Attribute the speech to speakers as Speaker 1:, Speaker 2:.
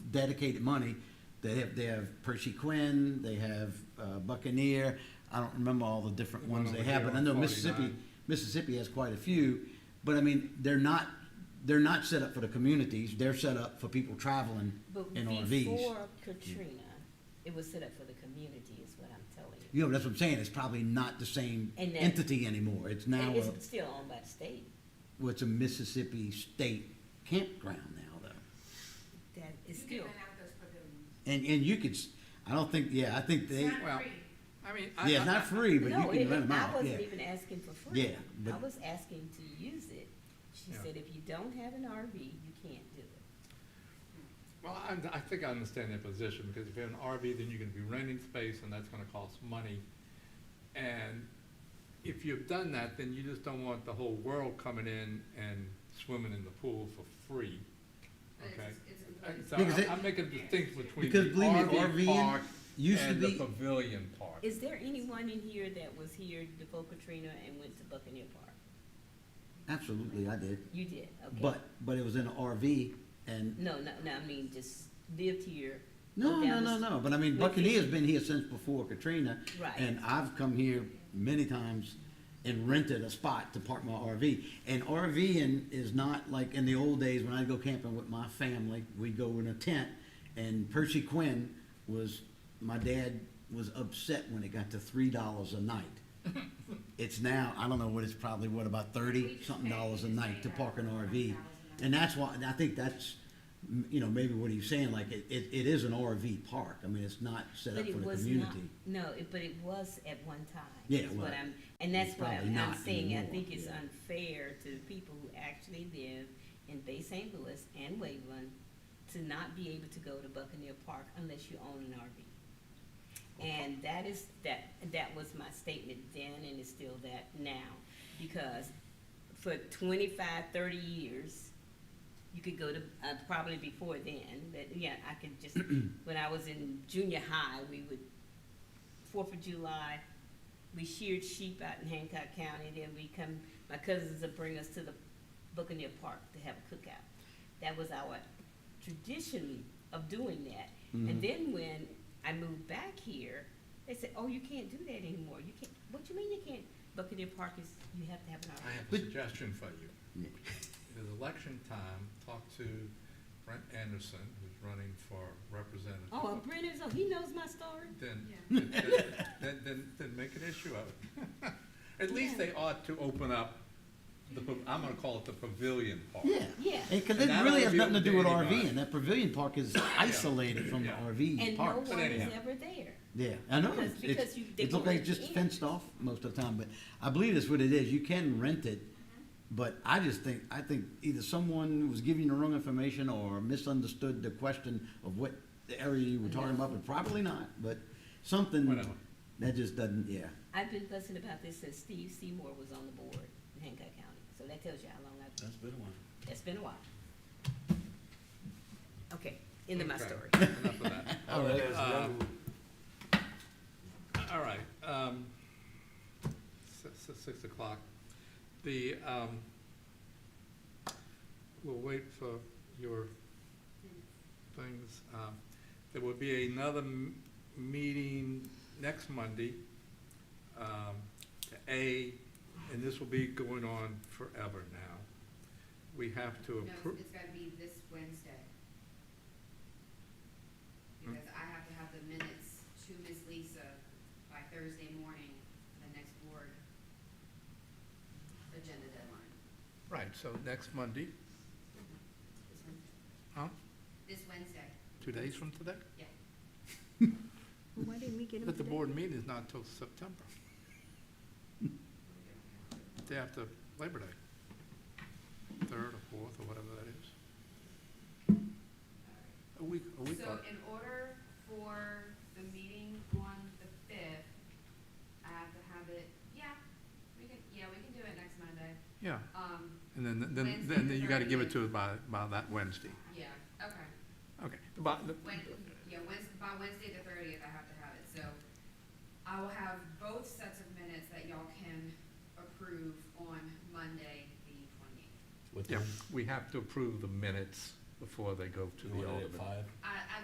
Speaker 1: dedicated money. They have, they have Percy Quinn, they have uh, Buccaneer, I don't remember all the different
Speaker 2: The one
Speaker 1: ones they
Speaker 2: over
Speaker 1: have,
Speaker 2: here
Speaker 1: but I
Speaker 2: on
Speaker 1: know Mississippi,
Speaker 2: 49.
Speaker 1: Mississippi has quite a few. But I mean, they're not, they're not set up for the communities, they're set up for people traveling
Speaker 3: But
Speaker 1: in RVs.
Speaker 3: before Katrina, it was set up for the community is what I'm telling you.
Speaker 1: You know, that's what I'm saying, it's probably not the same
Speaker 3: And that-
Speaker 1: entity anymore, it's now, uh,
Speaker 3: And
Speaker 1: a-
Speaker 3: it's still owned by the state.
Speaker 1: well, it's a Mississippi state campground now, though.
Speaker 3: That is
Speaker 4: You
Speaker 3: still,
Speaker 4: can rent out those pavilions.
Speaker 1: And, and you could, s- I don't think, yeah, I think they,
Speaker 4: It's not
Speaker 2: Well,
Speaker 4: free.
Speaker 2: I mean, I,
Speaker 1: yeah, it's not
Speaker 2: I,
Speaker 1: free, but
Speaker 3: no,
Speaker 1: you
Speaker 3: it-
Speaker 1: can rent them
Speaker 3: I
Speaker 1: out, yeah.
Speaker 3: wasn't even asking for free.
Speaker 1: Yeah, but-
Speaker 3: I was asking to use it. She
Speaker 2: Yeah.
Speaker 3: said, if you don't have an RV, you can't do it.
Speaker 2: well, I, I think I understand their position, because if you have an RV, then you're gonna be renting space, and that's gonna cost money. And if you've done that, then you just don't want the whole world coming in and swimming in the pool for free.
Speaker 4: But it's-
Speaker 2: Okay.
Speaker 4: it's
Speaker 2: And
Speaker 4: included.
Speaker 2: so
Speaker 1: Because
Speaker 2: I'm,
Speaker 1: it-
Speaker 2: I'm making a distinction between
Speaker 1: because
Speaker 2: the
Speaker 1: believe me,
Speaker 2: RV
Speaker 1: RVing
Speaker 2: park
Speaker 1: used to
Speaker 2: and the
Speaker 1: be-
Speaker 2: pavilion park.
Speaker 3: Is there anyone in here that was here before Katrina and went to Buccaneer Park?
Speaker 1: Absolutely, I did,
Speaker 3: You did, okay.
Speaker 1: but, but it was in an RV and,
Speaker 3: No, no, no, I mean, just lived here.
Speaker 1: no,
Speaker 3: moved
Speaker 1: no,
Speaker 3: down
Speaker 1: no,
Speaker 3: the
Speaker 1: no, but I mean,
Speaker 3: But
Speaker 1: Buccaneer's
Speaker 3: it-
Speaker 1: been here since before Katrina.
Speaker 3: Right.
Speaker 1: And I've come here many times and rented a spot to park my RV. And RVing is not like in the old days when I'd go camping with my family, we'd go in a tent. And Percy Quinn was, my dad was upset when it got to three dollars a night. It's now, I don't know what it's probably, what, about
Speaker 4: We
Speaker 1: thirty
Speaker 4: just
Speaker 1: something
Speaker 4: pay-
Speaker 1: dollars a
Speaker 4: we just
Speaker 1: night
Speaker 4: pay
Speaker 1: to park an
Speaker 4: around
Speaker 1: RV?
Speaker 4: $1,000.
Speaker 1: And that's why, and I think that's, m- you know, maybe what he's saying, like, it, it, it is an RV park. I mean, it's not set
Speaker 3: But
Speaker 1: up
Speaker 3: it
Speaker 1: for the
Speaker 3: was
Speaker 1: community.
Speaker 3: not, no, it- but it was at one time.
Speaker 1: Yeah,
Speaker 3: is
Speaker 1: it
Speaker 3: what
Speaker 1: was.
Speaker 3: I'm- And that's
Speaker 1: It's
Speaker 3: what
Speaker 1: probably
Speaker 3: I'm, I'm
Speaker 1: not
Speaker 3: saying, I
Speaker 1: anymore,
Speaker 3: think it's
Speaker 1: yeah.
Speaker 3: unfair to people who actually live in Bay St. Louis and Waveland to not be able to go to Buccaneer Park unless you own an RV. And that is, that, that was my statement then and it's still that now, because for 25, 30 years, you could go to, uh, probably before then, but yeah, I could just, when I was in junior high, we would, Fourth of July, we sheared sheep out in Hancock County, then we come, my cousins would bring us to the Buccaneer Park to have a cookout. That was our tradition of doing that.
Speaker 1: Mm-hmm.
Speaker 3: And then when I moved back here, they said, oh, you can't do that anymore, you can't, what you mean you can't? Buccaneer Park is, you have to have an
Speaker 2: I
Speaker 3: RV.
Speaker 2: have a
Speaker 1: But-
Speaker 2: suggestion for you.
Speaker 1: Yeah.
Speaker 2: It is election time, talk to Brent Anderson, who's running for representative.
Speaker 3: Oh, and Brenner's, oh, he knows my story.
Speaker 2: Then,
Speaker 4: Yeah.
Speaker 2: then, then, then- then make an issue of it. At least they ought to open up the, pa- I'm gonna call it the pavilion part.
Speaker 1: Yeah.
Speaker 3: Yeah.
Speaker 1: Because
Speaker 2: And
Speaker 1: it
Speaker 2: that
Speaker 1: really
Speaker 2: ought
Speaker 1: has
Speaker 2: to be
Speaker 1: nothing to
Speaker 2: open
Speaker 1: do with
Speaker 2: to anybody.
Speaker 1: RVing. That pavilion park is isolated from the
Speaker 2: Yeah.
Speaker 1: RV
Speaker 3: And no
Speaker 1: park.
Speaker 3: one is
Speaker 2: anyhow.
Speaker 3: ever there.
Speaker 1: Yeah, I know.
Speaker 3: Because-
Speaker 1: it's-
Speaker 3: because
Speaker 1: it's-
Speaker 3: you- they
Speaker 1: It looks
Speaker 3: go
Speaker 1: like
Speaker 3: in
Speaker 1: it's just
Speaker 3: and-
Speaker 1: fenced off most of the time, but I believe that's what it is. You can rent it.
Speaker 3: Mm-hmm.
Speaker 1: But I just think, I think either someone was giving you the wrong information or misunderstood the question of what the area you were talking about, but probably not, but something
Speaker 2: Whatever.
Speaker 1: that just doesn't, yeah.
Speaker 3: I've been fussing about this since Steve Seymour was on the board in Hancock County, so that tells you how long I've,
Speaker 1: That's been a while.
Speaker 3: that's been a while. Okay, end of my
Speaker 2: Okay,
Speaker 3: story.
Speaker 2: Enough of that.
Speaker 1: All right.
Speaker 2: Uh, All right, um, si- si- six o'clock. The, um, we'll wait for your things. Um, There will be another m- meeting next Monday, um, to A, and this will be going on forever now. We have to
Speaker 4: No,
Speaker 2: approve.
Speaker 4: it's- it's gotta be this Wednesday.
Speaker 2: Hmm.
Speaker 4: Because I have to have the minutes to Miss Lisa by Thursday morning, the next board agenda deadline.
Speaker 2: Right, so next Monday, Mm-hmm.
Speaker 4: This Wednesday.
Speaker 2: huh?
Speaker 4: This Wednesday,
Speaker 2: Two days from today?
Speaker 4: yeah.
Speaker 3: Why didn't we get
Speaker 2: But the board meeting is not until September, day after Labor Day. Third or fourth or whatever that is. A week, a week.
Speaker 4: So
Speaker 2: out.
Speaker 4: in order for the meeting on the fifth, I have to have it, yeah, we can, yeah, we can do it next Monday.
Speaker 2: Yeah,
Speaker 4: Um,
Speaker 2: and then, then,
Speaker 4: Wednesday
Speaker 2: then
Speaker 4: the
Speaker 2: you gotta give it to
Speaker 4: 30th.
Speaker 2: us by, by that Wednesday.
Speaker 4: yeah, okay.
Speaker 2: Okay, by, the-
Speaker 4: When, yeah, Wednesday, by Wednesday the thirtieth, I have to have it, so I will have both sets of minutes that y'all can approve on Monday, the twenty-eighth.
Speaker 5: What
Speaker 2: yeah,
Speaker 5: time?
Speaker 2: we have to approve the minutes before they go to
Speaker 5: You
Speaker 2: the
Speaker 5: want it
Speaker 2: alderman.
Speaker 5: at five?
Speaker 4: I,